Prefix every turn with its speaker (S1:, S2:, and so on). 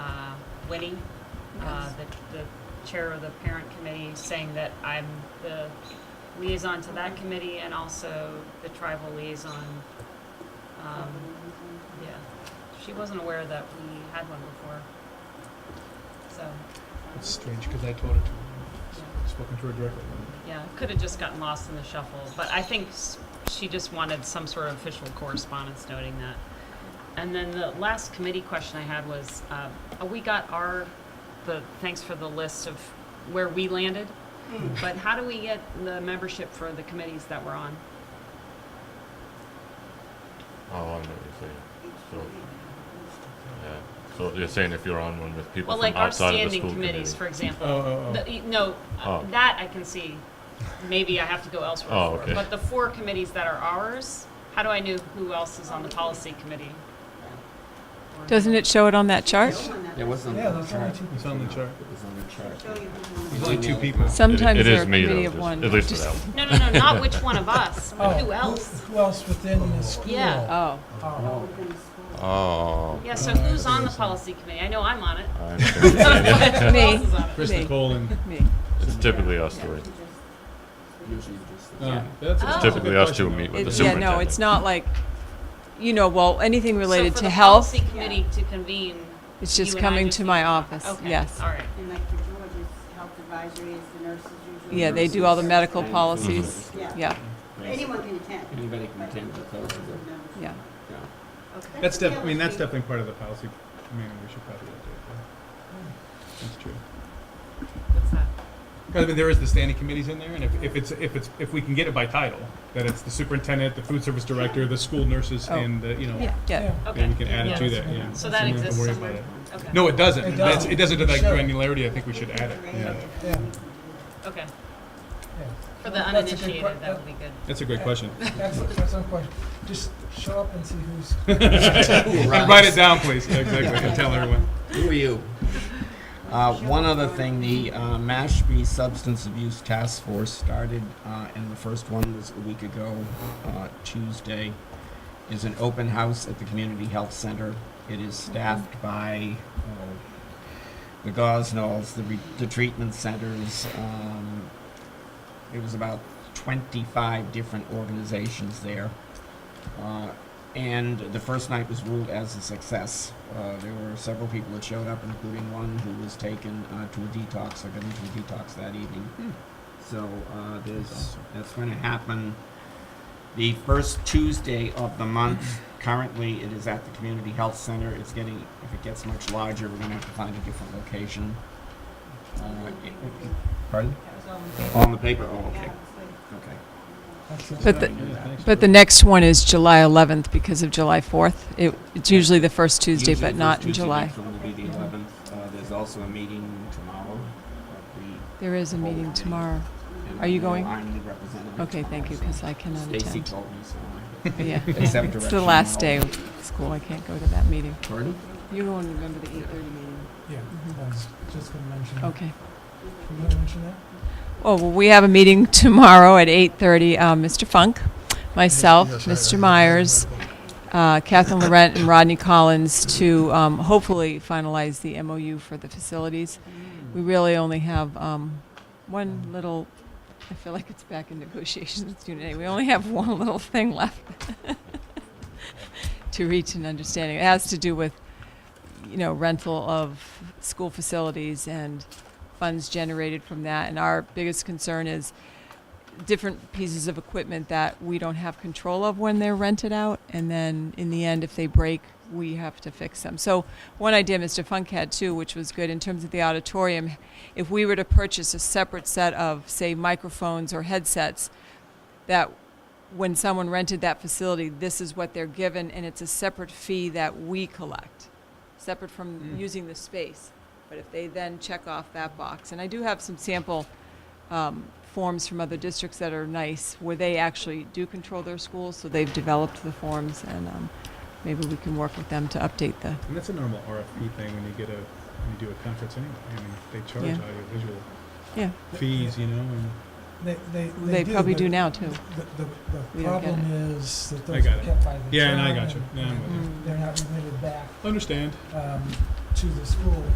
S1: Winnie, uh,
S2: Yes.
S1: the, the chair of the parent committee, saying that I'm the liaison to that committee and also the tribal liaison. Um, yeah, she wasn't aware that we had one before. So,
S3: It's strange because I told her to.
S1: yeah.
S3: Spoken to her directly.
S1: Yeah, it could have just gotten lost in the shuffle, but I think s- she just wanted some sort of official correspondence noting that. And then the last committee question I had was, uh, we got our, the, thanks for the list of where we landed, but how do we get the membership for the committees that we're on?
S4: Oh, I know what you're saying. So, yeah. So you're saying if you're on one with people
S1: Well,
S4: from
S1: like our
S4: outside of the
S1: standing
S4: school
S1: committees,
S4: committee?
S1: for example.
S3: Oh, oh,
S1: The-
S3: oh.
S1: y- No, uh,
S4: Oh.
S1: that I can see. Maybe I have to go elsewhere
S4: Oh,
S1: for.
S4: okay.
S1: But the four committees that are ours, how do I know who else is on the policy committee? Or-
S2: Doesn't it show it on that chart?
S5: It wasn't.
S3: Yeah, that's only two. It's on the chart.
S5: It was on the chart.
S3: There's only two people.
S2: Sometimes
S4: it
S2: they're
S4: is
S2: a
S4: me, though,
S2: committee of
S4: just-
S2: one.
S4: at least for
S2: Just-
S4: that one.
S1: No, no, no, not which one of us,
S3: Oh,
S1: but who else?
S6: Who else within the school?
S1: Yeah.
S2: Oh,
S6: Oh.
S4: Oh.
S1: Yeah, so who's on the policy committee? I know I'm on it.
S4: I understand. Yeah.
S1: Who else
S2: Me.
S1: is on it?
S3: Chris
S2: Me.
S3: Nicole and. um,
S2: me.
S4: It's typically us three.
S5: Usually just.
S3: Uh, that's
S1: Oh.
S3: a- that's a good
S4: Typically us two
S3: question,
S4: meet
S3: though.
S4: with the
S2: It's, yeah, no, it's
S4: superintendent.
S2: not like, you know, well, anything related
S1: So
S2: to health,
S1: for the policy committee to convene,
S2: it's
S1: you
S2: just
S1: and I
S2: coming
S1: just
S2: to
S1: need-
S2: my office,
S1: okay,
S2: yes.
S1: all right.
S7: And like for George's health advisory is the nurses usually.
S2: Yeah, they do all the medical
S5: Mhm.
S2: policies,
S7: Yeah.
S2: yeah,
S7: Anyone can attend.
S5: Anybody can attend, but those are the-
S2: yeah.
S5: yeah.
S7: Okay.
S3: That's def, I mean, that's definitely part of the policy. I mean, we should probably update that. That's true.
S1: What's that?
S3: I mean, there is the standing committees in there, and if, if it's, if it's, if we can get it by title, that it's the superintendent, the food service director, the school nurses,
S2: Oh.
S3: and the, you know,
S2: Yeah, yeah,
S3: then
S1: Okay.
S3: we can add it to
S1: Yeah.
S3: that, yeah.
S1: So that
S3: we don't have
S1: exists
S3: to worry
S1: somewhere?
S3: about it.
S1: Okay.
S3: No, it doesn't.
S6: It
S3: That's,
S6: doesn't.
S3: it doesn't to that
S6: It shouldn't.
S3: granularity. I think we should add it. Yeah.
S6: Yeah.
S1: Okay.
S6: Yeah.
S1: For the
S6: That's a good que-
S1: uninitiated, that would be good.
S3: That's a great question.
S6: That's, that's no question. Just show up and see who's.
S3: And write it down, please. Yeah, Exactly. And tell everyone.
S5: Who are you? Uh, one other thing, the uh, Mashpee Substance Abuse Task Force started, uh, and the first one was a week ago, uh, Tuesday. Is an open house at the Community Health Center. It is staffed by oh, the Gosnells, the, re- the treatment centers. Um, it was about 25 different organizations there. Uh, and the first night was ruled as a success. Uh, there were several people that showed up, including one who was taken uh, to a detox. I got into a detox that evening. So uh, there's, that's going to happen the first Tuesday of the month. Currently, it is at the Community Health Center. It's getting, if it gets much larger, we're going to have to find a different location. Uh, it- it- pardon? On the paper. Oh, okay. Okay.
S2: But the, but the next one is July 11th because of July 4th. It, it's usually the first Tuesday,
S5: Usually
S2: but
S5: the
S2: not
S5: first
S2: in
S5: Tuesday
S2: July.
S5: next one will be the 11th. Uh, there's also a meeting tomorrow. of
S2: There is a
S5: Full
S2: meeting
S5: meeting.
S2: tomorrow.
S5: the-
S2: Are you going?
S5: I'm the representative.
S2: Okay, thank you, because I cannot
S5: Stacy
S2: attend.
S5: told me so.
S2: Yeah,
S5: Except
S2: it's the last day of school, I can't go to that meeting.
S5: Pardon?
S2: You're going to remember the 8:30 meeting.
S6: Yeah, I was just gonna mention. that.
S2: Okay.
S6: You gonna mention that?
S2: Oh, well, we have a meeting tomorrow at 8:30. Uh, Mr. Funk, myself, Mr. Myers, uh, Catherine Laurent, and Rodney Collins to um, hopefully finalize the MOU for the facilities. We really only have um, one little, I feel like it's back in negotiations today. We only have one little thing left to reach an understanding. It has to do with, you know, rental of school facilities and funds generated from that. And our biggest concern is different pieces of equipment that we don't have control of when they're rented out. And then in the end, if they break, we have to fix them. So one idea Mr. Funk had too, which was good in terms of the auditorium, if we were to purchase a separate set of, say, microphones or headsets, that when someone rented that facility, this is what they're given, and it's a separate fee that we collect, separate from using the space. But if they then check off that box, and I do have some sample um, forms from other districts that are nice, where they actually do control their schools, so they've developed the forms, and um, maybe we can work with them to update the.
S3: And that's a normal RFP thing when you get a, when you do a conference anyway. I mean, they charge
S2: Yeah.
S3: audiovisual
S2: Yeah,
S3: fees, you know, and
S6: They, they,
S2: they,
S6: they do.
S2: probably
S6: but
S2: do now too.
S6: The, the,
S2: We
S6: the
S2: don't get
S6: problem is that
S3: I
S6: those
S3: got
S6: are
S3: it.
S6: kept by the.
S3: Yeah, and I
S6: town
S3: got you.
S6: and-
S3: Yeah, I'm with
S6: and They're not remitted back,
S3: understand.
S6: um, to the school.